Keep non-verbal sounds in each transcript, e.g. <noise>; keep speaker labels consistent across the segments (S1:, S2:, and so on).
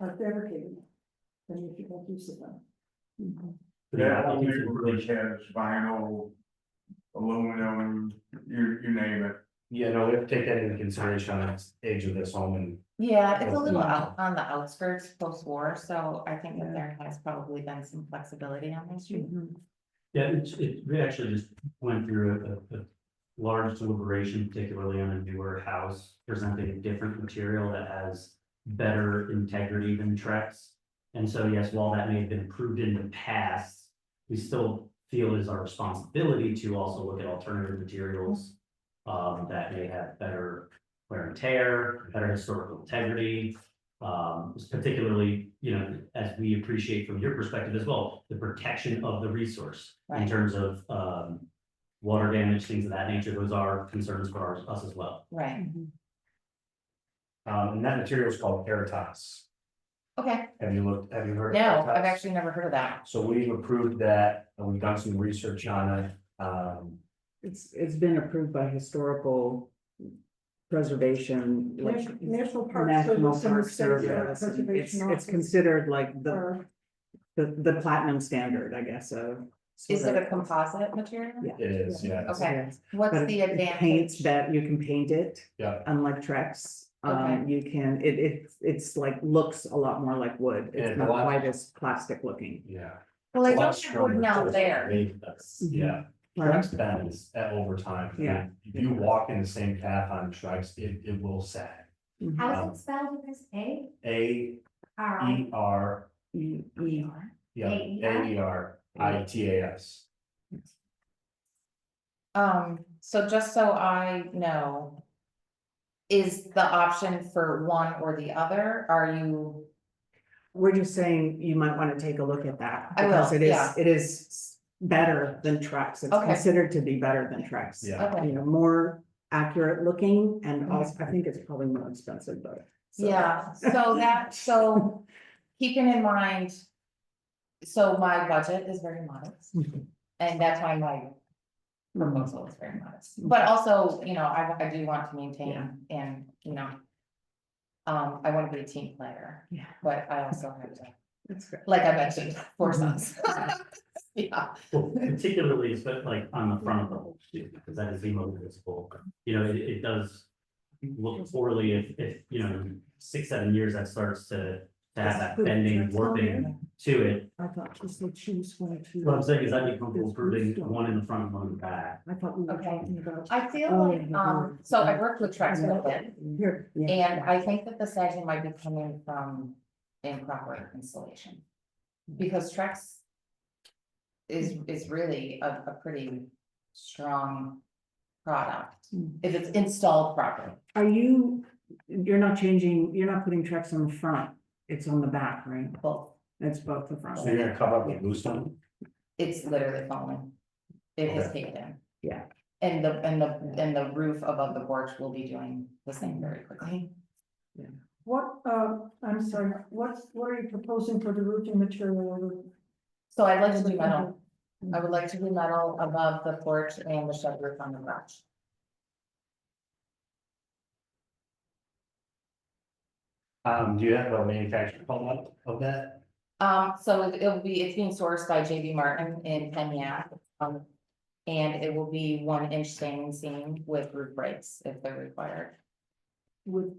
S1: are fabricated. Then you can make use of them.
S2: Mm-hmm.
S3: Yeah,
S4: I
S3: all
S4: think it's
S3: new
S4: really-
S3: roof has vinyl, aluminum, you, you name it.
S4: Yeah, no, we have to take that into consideration on the age of this home and,
S5: Yeah, it's a
S4: Well,
S5: little
S4: yeah.
S5: out on the outskirts post-war, so I think that there has probably been some flexibility on this.
S6: Yeah, it's, it, we actually just went through a, a, a large deliberation, particularly on a newer house, presenting a different material that has better integrity than Trex. And so, yes, while that may have been approved in the past, we still feel it is our responsibility to also look at alternative materials um, that may have better wear and tear, better historical integrity. Um, particularly, you know, as we appreciate from your perspective as well, the protection of the resource in
S5: Right.
S6: terms of, um, water damage, things of that nature. Those are concerns for ours- us as well.
S5: Right,
S4: um, and that material is called Airtox.
S5: okay,
S4: Have you looked, have you heard? of
S5: no, I've
S4: Airtox?
S5: actually never heard of that.
S4: So we've approved that, and we've done some research on it, um,
S2: It's, it's been approved by historical preservation, like
S1: Nat- National Park
S2: National
S1: Service and the
S2: Park
S1: State
S2: Service.
S1: Forest
S2: and It's,
S1: Preservation
S2: it's
S1: Office
S2: considered like the,
S1: are
S2: the, the platinum standard, I guess, so.
S5: Is it a composite material?
S2: Yeah.
S4: it is, yeah.
S5: Okay.
S2: Yes,
S5: What's
S2: but
S5: the
S2: it- it Paints
S5: advantage?
S2: that you can paint it.
S4: Yeah.
S2: Unlike Trex, um,
S5: Okay.
S2: you can, it, it, it's like, looks a lot more like wood.
S4: And
S2: It's
S4: a
S2: not
S4: lot-
S2: quite as plastic looking.
S4: Yeah.
S5: Well, I
S4: A lot
S5: don't have
S4: stronger
S5: one out
S4: too.
S5: there. Mm-hmm.
S4: Yeah, Trex bends at over time.
S2: Yeah.
S4: If you walk in the same path on Trex, it, it will sag.
S2: Mhm.
S7: How is it spelled with this A?
S4: A
S7: R I
S4: E R,
S2: E-
S7: E
S2: e-
S7: R?
S4: yeah, A E R I T A S.
S5: Um, so just so I know. Is the option for one or the other? Are you,
S2: We're just saying you might want to take a look at that.
S5: I will,
S2: because It
S5: yeah.
S2: is, it is better than Trex. It's
S5: Okay.
S2: considered to be better than Trex.
S4: Yeah.
S5: okay,
S2: You know, more accurate looking and
S5: Mhm.
S2: also, I think it's probably more expensive, but. so-
S5: yeah, so that,
S2: <laughs>
S5: so keeping in mind. So my budget is very modest.
S2: Mm-hmm.
S5: And that's why my proposal is very modest, but also, you know, I, I do want to
S2: Mm-hmm. Yeah.
S5: maintain and, you know. Um, I wanna be a team player.
S2: Yeah.
S5: But I also have to,
S2: That's great.
S5: like I mentioned, four
S2: Mm-hmm.
S5: sons. <laughs> Yeah,
S6: Well, particularly, it's but like on the front of the whole too, because that is the most visible. You know, it, it does look poorly if, if, you know, in six, seven years, that starts to to have that bending, warping to it.
S2: I thought just would choose one or two.
S6: What I'm saying is I'd be comfortable proving one in the front, one in the back.
S2: I thought we were
S5: Okay.
S2: talking about.
S5: I feel
S2: Oh,
S5: like, um, so I worked with Trex for a bit,
S2: Here. yeah.
S5: and I think that the sagging might be coming from improper installation. Because Trex is, is really a, a pretty strong product, if it's installed properly.
S2: Are you, you're not changing, you're not putting Trex on the front, it's on the back, right?
S5: Well,
S2: It's both the front.
S4: So you're gonna cover up with bluestone?
S5: it's literally falling. It has caved in.
S2: Yeah.
S5: And the, and the, and the roof above the porch will be doing the same very quickly.
S1: What, um, I'm sorry, what's, what are you proposing for the roofing material?
S5: So I'd like to do metal. I would like to do metal above the porch and the shed roof on the garage.
S4: Um, do you have a manufacturer called up of that?
S5: Um, so it- it'll be, it's being sourced by JB Martin in Kenya. Um, and it will be one inch standing seam with roof breaks if they're required. With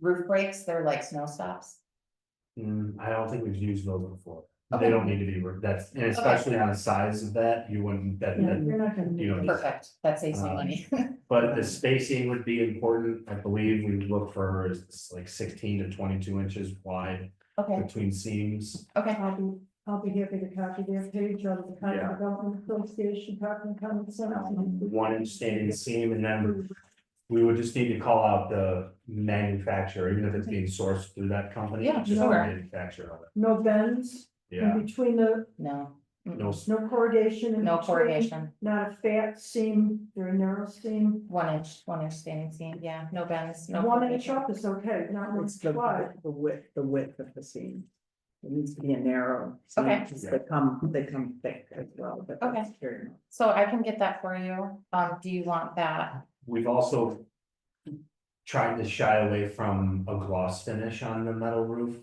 S5: roof breaks, they're like snow stops.
S4: Hmm, I don't think we've used those before.
S5: Okay.
S4: They don't need to be, re- that's, and especially on the size of that, you wouldn't, that,
S1: You're
S4: that,
S1: not gonna.
S4: you don't need.
S5: Perfect. That saves me
S4: Um,
S5: money. <laughs>
S4: But the spacing would be important, I believe we look for is like sixteen to twenty-two inches wide
S5: Okay,
S4: between seams.
S5: okay.
S1: I'll be, I'll be happy to copy their page out of the
S4: Yeah.
S1: County Development Association, Parkland Common Center.
S2: Um,
S4: One inch standing seam and then we would just need to call out the manufacturer, even if it's being sourced through that company.
S5: Yeah,
S4: just the
S5: sure.
S4: Manufacturer of it,
S1: No bends
S4: yeah,
S1: in between the,
S5: No,
S4: no, s-
S1: no corrugation. in
S5: no
S1: between,
S5: corrugation,
S1: Not a fat seam, very narrow seam.
S5: one inch, one inch standing seam, yeah, no bends, no.
S1: One inch
S5: corrugation.
S1: up is okay, not one
S2: It's the,
S1: inch wide.
S2: the width, the width of the seam. It needs to be a narrow. seam,
S5: Okay.
S2: because They come, they come thick as well, but
S5: Okay.
S2: that's very. nice.
S5: So I can get that for you. Um, do you want that?
S4: we've also. Tried to shy away from a gloss finish on the metal roof